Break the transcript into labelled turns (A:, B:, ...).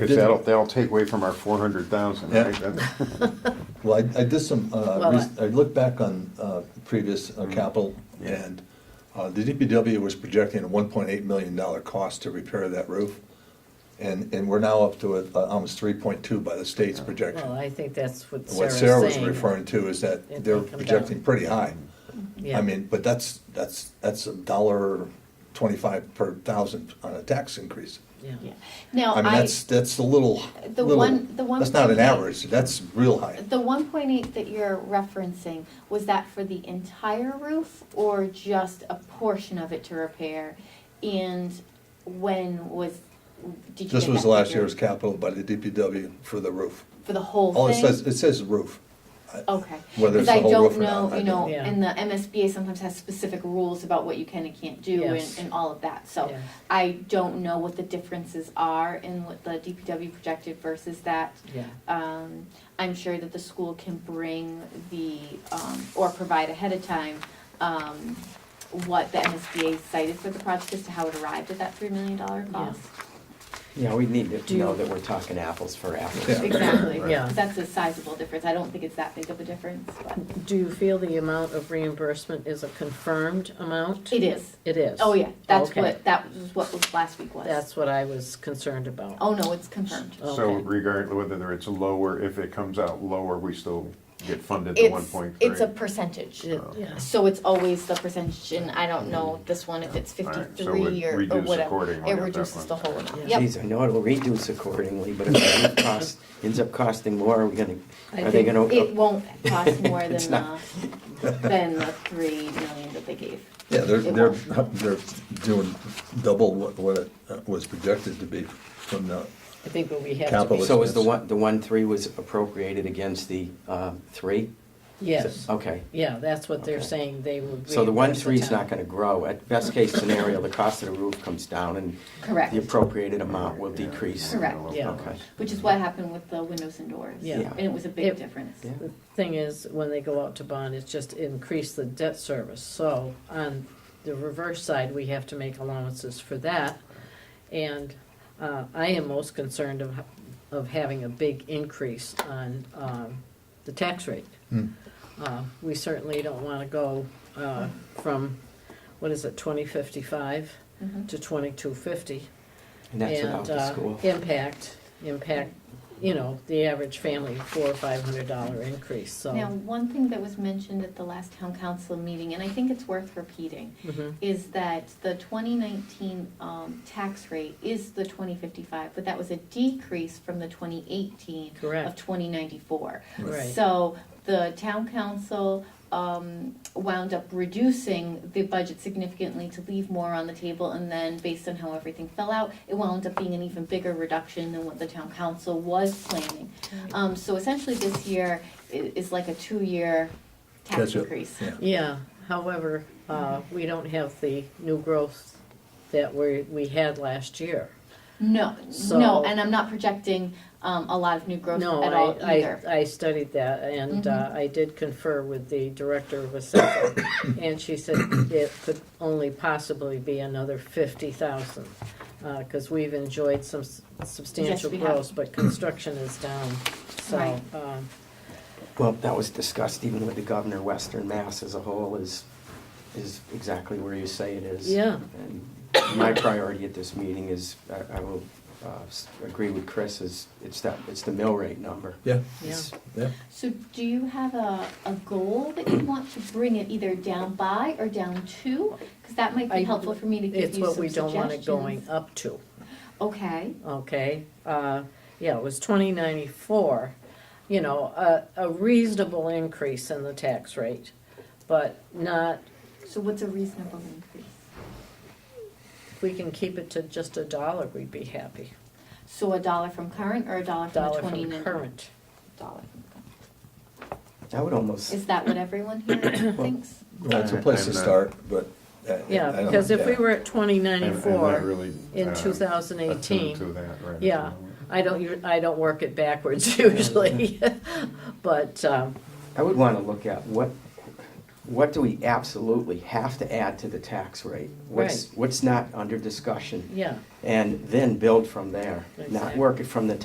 A: Because that'll, that'll take away from our four hundred thousand,
B: Yeah.
A: right? That's-
B: Well, I, I did some, uh,
C: Well,
B: res- I looked back on, uh, previous uh, capital and, uh, the DPW was projecting a one point eight million dollar cost to repair that roof. And, and we're now up to uh, almost three point two by the state's
C: Well,
B: projection.
C: I think that's what
B: What
C: Sarah's
B: Sarah was
C: saying.
B: referring to is
C: It may
B: that they're
C: come down.
B: projecting pretty high.
C: Yeah.
B: I mean, but that's, that's, that's a dollar twenty-five per thousand on a tax increase.
C: Yeah.
D: Yeah. Now,
B: I mean,
D: I,
B: that's, that's a little,
D: The
B: little-
D: one- the one
B: that's not an
D: point eight-
B: average, that's real high.
D: the one point eight that you're referencing, was that for the entire roof or just a portion of it to repair? And when was, did you
B: This
D: get
B: was
D: that
B: last
D: figure?
B: year's capital by the DPW for the roof.
D: For the whole thing?
B: All it says, it says roof.
D: Okay.
B: Whether it's
D: Because
B: the
D: I
B: whole
D: don't
B: roof or
D: know,
B: not, I
D: you
B: don't-
D: know,
C: Yeah.
D: and the MSBA sometimes has specific rules about what you can and can't do and,
C: Yes.
D: and all of that, so.
C: Yeah.
D: I don't know what the differences are in what the DPW projected versus that.
C: Yeah.
D: Um, I'm sure that the school can bring the, um, or provide ahead of time, um, what the MSBA cited for the project as to how it arrived at that three million dollar cost.
E: Yeah, we need
C: Do
E: to
C: you-
E: know that we're talking apples for apples.
B: Yeah.
D: Exactly,
C: Yeah.
D: 'cause that's a sizable difference, I don't think it's that big of a difference, but
C: Do you feel the amount of reimbursement is a confirmed amount?
D: it is.
C: It is?
D: Oh, yeah, that's
C: Okay.
D: what, that was what was last week was.
C: That's what I was concerned about.
D: Oh, no, it's confirmed.
A: So
C: Okay.
A: regardless whether it's lower, if it comes out lower, we still get funded the one
D: It's,
A: point three.
D: it's a percentage.
C: It- yeah.
D: So it's always the percentage, and I don't know this one, if it's
A: All right, so
D: fifty-three
A: it
D: or, or
A: reduces
D: whatever.
A: accordingly
D: It
A: at that
D: reduces
A: one.
D: the whole amount,
C: Yeah.
D: yep.
E: Geez, I know it'll reduce accordingly, but if it costs, ends up costing more, are we gonna,
C: I
E: are they
C: think
E: gonna?
D: It won't cost more than
E: It's
D: the,
E: not-
D: than the three million that they gave.
B: Yeah, they're,
D: It
B: they're,
D: won't.
B: they're doing double what, what it uh, was projected to be from the,
C: I think what we have to
B: Capital-
C: be,
E: So is the one, the one three was appropriated against the, uh, three?
C: yes,
E: Okay.
C: yeah, that's what they're
E: Okay.
C: saying, they would
E: So the one
C: reimburse
E: three is
C: town.
E: not gonna grow. At best case scenario, the cost of the roof comes down and
D: Correct,
E: the appropriated amount will decrease.
D: Correct.
C: Yeah.
E: Okay.
D: which is what happened with the windows and doors.
C: Yeah.
E: Yeah.
D: And it was a
C: It-
D: big difference.
E: Yeah.
C: The thing is, when they go out to bond, it's just increase the debt service. So on the reverse side, we have to make allowances for that. And uh, I am most concerned of, of having a big increase on um, the tax rate.
B: Hmm.
C: Uh, We certainly don't want to go uh, from, what is it, 2055
D: Mhm.
C: to 2250
E: And that's
C: and,
E: without the
C: uh,
E: school.
C: Impact, impact, you know, the average family, four or five hundred dollar increase,
D: Now,
C: so.
D: one thing that was mentioned at the last town council meeting, and I think it's worth repeating,
E: Mm-hmm.
C: Mhm.
D: is that the twenty nineteen, um, tax rate is the twenty fifty-five, but that was a decrease from the twenty eighteen of
C: Correct,
D: twenty ninety-four.
C: right,
D: So the town council um, wound up reducing the budget significantly to leave more on the table. And then based on how everything fell out, it wound up being an even bigger reduction than what the town council was planning. Um, So essentially this year i- is like a two-year tax
B: Catch up.
D: increase.
B: yeah.
C: yeah, however, uh, we don't have the new growth that we, we had last year.
D: No,
C: So-
D: no, and I'm not projecting um, a lot of new growth at
C: No,
D: all
C: I,
D: either. Mm-hmm.
C: I, I studied that, and uh, I did confer with the director of assessment, and she said it could only possibly be another fifty thousand, because we've enjoyed some s- substantial
D: Yes, we have.
C: growth, but construction is down, so.
D: Right.
C: um,
E: Well, that was discussed even with the governor, Western Mass as a whole is, is exactly where you say it is.
C: Yeah.
E: And my priority at this meeting is, I, I will, uh, s- agree with Chris, is, it's that, it's the mill rate number.
B: Yeah,
E: It's-
B: yeah.
D: So do you have a, a goal that you want to bring it either down by or down to? Because that might
C: I-
D: be helpful for me to give
C: It's
D: you some
C: what we
D: suggestions.
C: don't want it going up to,
D: Okay,
C: okay? Uh, Yeah, it was twenty ninety-four, you know, a, a reasonable increase in the tax rate, but not
D: so what's a reasonable increase?
C: If we can keep it to just a dollar, we'd be happy.
D: So a dollar from current or a dollar from the
C: Dollar
D: twenty?
C: from current.
D: Dollar from current.
E: I would almost,
D: Is that what everyone here thinks?
B: Well, it's a
A: I-
B: place to
A: I'm not-
B: start, but. uh, I
C: Yeah,
B: don't-
C: because if we
B: yeah.
C: were at twenty ninety-four in
A: two
C: two
A: thousand
C: thousand
A: uh, To
C: eighteen,
A: that, right. at
C: yeah,
A: the moment.
C: I don't, u- I don't work it backwards usually, but, um,
E: I would wanna look at what, what do we absolutely have to add to the tax rate? What's, what's not under discussion?
C: yeah.
E: And then build from there, not
C: Exactly.
E: work it from the